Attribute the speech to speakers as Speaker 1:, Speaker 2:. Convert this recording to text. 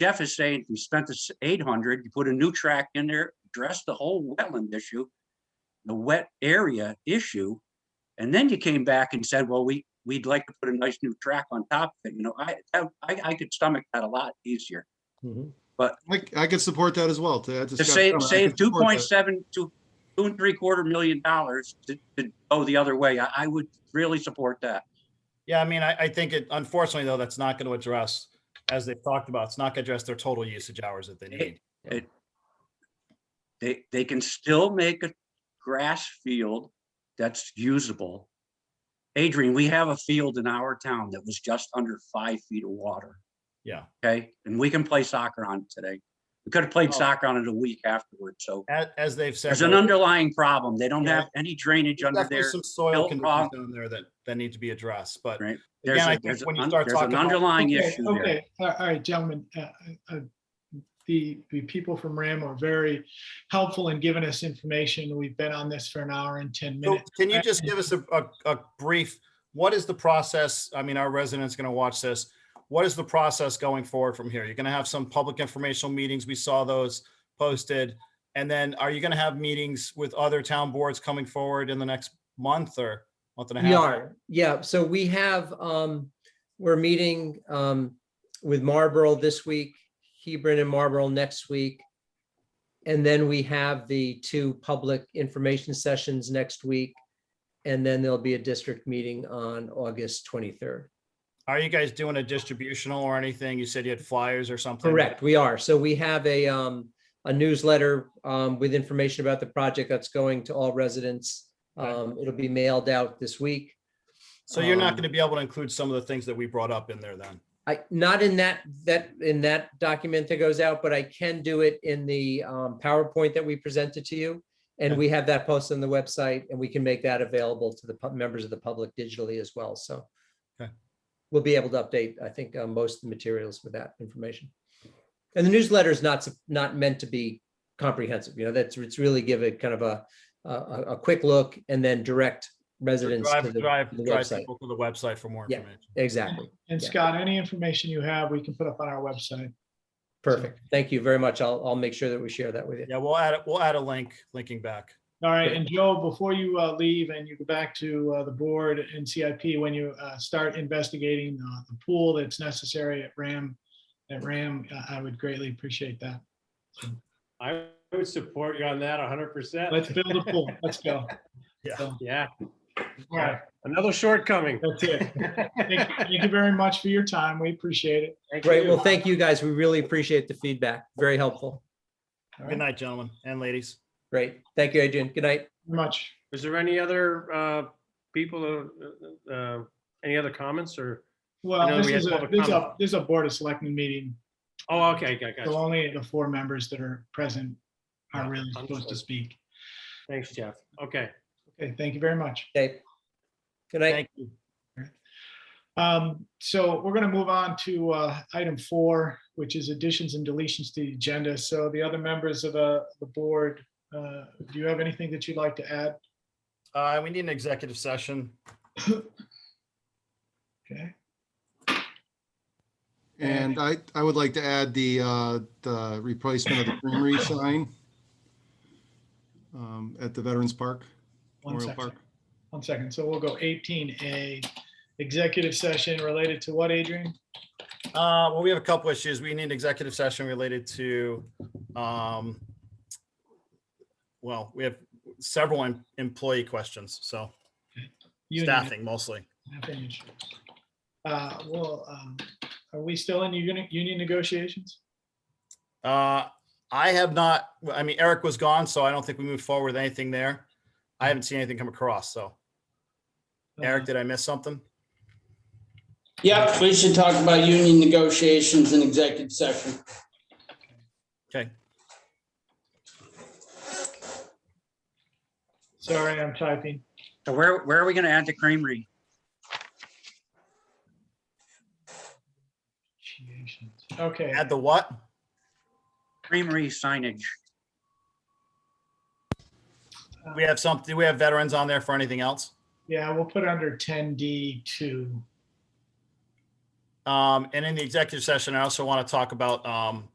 Speaker 1: Jeff is saying you spent this eight hundred, you put a new track in there, address the whole wetland issue, the wet area issue, and then you came back and said, well, we, we'd like to put a nice new track on top of it, you know, I, I, I could stomach that a lot easier.
Speaker 2: Mhm.
Speaker 3: I, I could support that as well. To add to
Speaker 1: To
Speaker 3: Scott's
Speaker 1: save,
Speaker 3: comment, I
Speaker 1: save
Speaker 3: could
Speaker 1: two
Speaker 3: support
Speaker 1: point
Speaker 3: that.
Speaker 1: seven, two, two and three quarter million dollars to, to go the other way, I, I would really support that.
Speaker 2: Yeah, I mean, I, I think it, unfortunately though, that's not going to address, as they've talked about, it's not going to address their total usage hours that they need.
Speaker 1: They, they can still make a grass field that's usable. Adrian, we have a field in our town that was just under five feet of water,
Speaker 2: Yeah.
Speaker 1: okay? And we can play soccer on it today. We could have
Speaker 2: Oh.
Speaker 1: played soccer on it a week afterward, so
Speaker 2: As, as they've said.
Speaker 1: there's an
Speaker 2: though,
Speaker 1: underlying problem. They don't
Speaker 2: Yeah.
Speaker 1: have any drainage under
Speaker 2: Definitely
Speaker 1: there.
Speaker 2: some soil
Speaker 1: built
Speaker 2: conditions
Speaker 1: wrong.
Speaker 2: down there that, that need to be addressed, but
Speaker 1: Right. There's,
Speaker 2: again, I
Speaker 1: a-
Speaker 2: think
Speaker 1: there's an
Speaker 2: when you
Speaker 1: un-
Speaker 2: start
Speaker 1: there's an
Speaker 2: talking about-
Speaker 1: underlying
Speaker 4: Okay,
Speaker 1: issue there.
Speaker 4: Okay, all all right, gentlemen, uh, uh, the, the people from RAM are very helpful in giving us information. We've been on this for an hour and 10
Speaker 2: So
Speaker 4: minutes.
Speaker 2: can you just give us a, a, a brief, what is the process? I mean, our residents going to watch this. What is the process going forward from here? You're going to have some public informational meetings. We saw those posted. And then are you going to have meetings with other town boards coming forward in the next month or month and a half?
Speaker 5: We are, yeah. So we have, um, we're meeting, um, with Marlboro this week, Hebron and Marlboro next week. And then we have the two public information sessions next week. And then there'll be a district meeting on August 23rd.
Speaker 2: Are you guys doing a distributional or anything? You said you had flyers or something.
Speaker 5: Correct, we are. So we have a, um, a newsletter, um, with information about the project that's going to all residents.
Speaker 2: Okay.
Speaker 5: Um, it'll be mailed out this week.
Speaker 2: So you're not
Speaker 5: Um,
Speaker 2: going to be able to include some of the things that we brought up in there then.
Speaker 5: I, not in that, that, in that document that goes out, but I can do it in the um, PowerPoint that we presented to you. And
Speaker 2: Okay.
Speaker 5: we have that posted on the website and we can make that available to the pub- members of the public digitally as well, so.
Speaker 2: Okay.
Speaker 5: We'll be able to update, I think, uh, most of the materials with that information. And the newsletter is not, sup- not meant to be comprehensive, you know, that's, it's really give it kind of a, a, a- a quick look and then direct residents to
Speaker 2: Drive,
Speaker 5: the
Speaker 2: drive,
Speaker 5: to the
Speaker 2: drive
Speaker 5: website.
Speaker 2: people to the website for more
Speaker 5: Yeah.
Speaker 2: information.
Speaker 5: Exactly,
Speaker 4: And
Speaker 5: yeah.
Speaker 4: Scott, any information you have, we can put up on our website.
Speaker 5: perfect. Thank you very much. I'll, I'll make sure that we share that with you.
Speaker 2: Yeah, we'll add, it. we'll add a link, linking back.
Speaker 4: All right, and Joe, before you uh, leave and you go back to uh, the board and CIP, when you uh, start investigating uh, the pool that's necessary at RAM, at RAM, uh, I would greatly appreciate that.
Speaker 6: I would support you on that hundred percent.
Speaker 4: Let's build a pool. Let's go.
Speaker 2: Yeah.
Speaker 4: So,
Speaker 6: Yeah,
Speaker 4: All right,
Speaker 6: another shortcoming.
Speaker 4: that's it. Thank you- thank you very much for your time. We appreciate it.
Speaker 5: Great. Well, thank you guys. We really appreciate the feedback. Very helpful.
Speaker 4: All
Speaker 2: Good
Speaker 4: right,
Speaker 2: night, gentlemen and ladies.
Speaker 5: Great. Thank you, Adrian. Good night.
Speaker 4: very Much.
Speaker 6: Is there any other uh, people, uh, uh, any other comments or? I
Speaker 4: Well,
Speaker 6: know
Speaker 4: this
Speaker 6: we had
Speaker 4: is a,
Speaker 6: public
Speaker 4: this is a,
Speaker 6: comment.
Speaker 4: this is a board of selectmen meeting.
Speaker 6: Oh, okay, got,
Speaker 4: So
Speaker 6: got.
Speaker 4: only the four members that are present are
Speaker 6: Yeah,
Speaker 4: really supposed to
Speaker 6: understood.
Speaker 4: speak.
Speaker 6: Thanks, Jeff. Okay.
Speaker 4: Okay, thank you very much.
Speaker 5: Okay. Good night.
Speaker 2: Thank you.
Speaker 4: Um, so we're gonna move on to, uh, item four, which is additions and deletions to the agenda. So the other members of the, the board, uh, do you have anything that you'd like to add?
Speaker 2: Uh, we need an executive session.
Speaker 4: Okay,
Speaker 3: And I, I would like to add the, uh, the replacement of the creamery sign um, at the Veterans Park,
Speaker 4: one
Speaker 3: Memorial
Speaker 4: second,
Speaker 3: Park.
Speaker 4: one second. So we'll go eighteen A, executive session related to what, Adrian?
Speaker 2: Uh, well, we have a couple issues. We need an executive session related to, um, well, we have several em- employee questions, so
Speaker 4: Union.
Speaker 2: staffing mostly.
Speaker 4: Nothing issue. Uh, well, um, are we still in union, union negotiations?
Speaker 2: Uh, I have not, I mean, Eric was gone, so I don't think we moved forward with anything there. I haven't seen anything come across, so.
Speaker 4: Uh, Uh-huh.
Speaker 2: Eric, did I miss something?
Speaker 7: Yep, we should talk about union negotiations in executive session.
Speaker 2: Okay.
Speaker 4: Sorry, I'm typing.
Speaker 1: So where, where are we gonna add the creamery?
Speaker 4: Negotiations. Okay,
Speaker 2: Add the what?
Speaker 1: creamery signage.
Speaker 2: We have some, do we have veterans on there for anything else?
Speaker 4: yeah, we'll put it under ten D two.
Speaker 2: Um, and in the executive session, I also want to talk about, um,